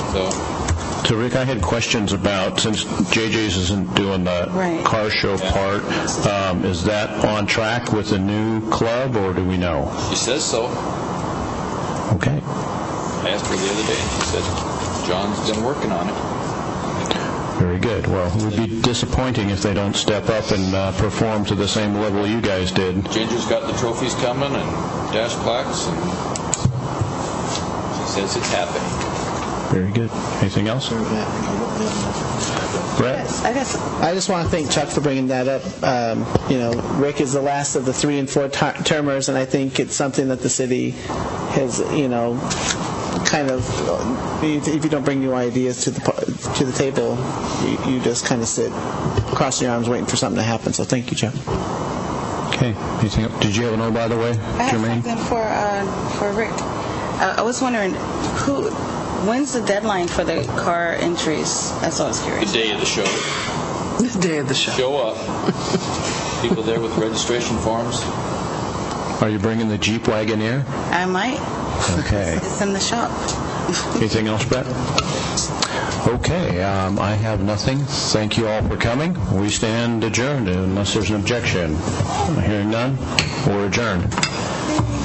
so. So Rick, I had questions about, since JJ's isn't doing the Right. car show part, um, is that on track with the new club, or do we know? He says so. Okay. I asked her the other day, and she said, John's been working on it. Very good. Well, it would be disappointing if they don't step up and uh, perform to the same level you guys did. Ginger's got the trophies coming and dash plaques, and she says it's happening. Very good. Anything else? Brett? Yes, I guess, I just want to thank Chuck for bringing that up. Um, You know, Rick is the last of the three and four ti- termers, and I think it's something that the city has, you know, kind of, if if you don't bring new ideas to the, par- to the table, you- you just kind of sit crossing your arms waiting for something to happen. So thank you, Chuck. Okay. Anything else? Did you have an oh, by the way, I have Jermaine? something for, uh, for Rick. Uh, I was wondering, who, when's the deadline for the car entries? That's all I was The curious. day of the show. The day of the show. show up. People there with registration forms. Are you bringing the Jeep Wagoneer? I might, Okay. it's in the shop. Anything else, Brett? Okay, um, I have nothing. Thank you all for coming. We stand adjourned unless there's an objection. Hearing none, we're adjourned.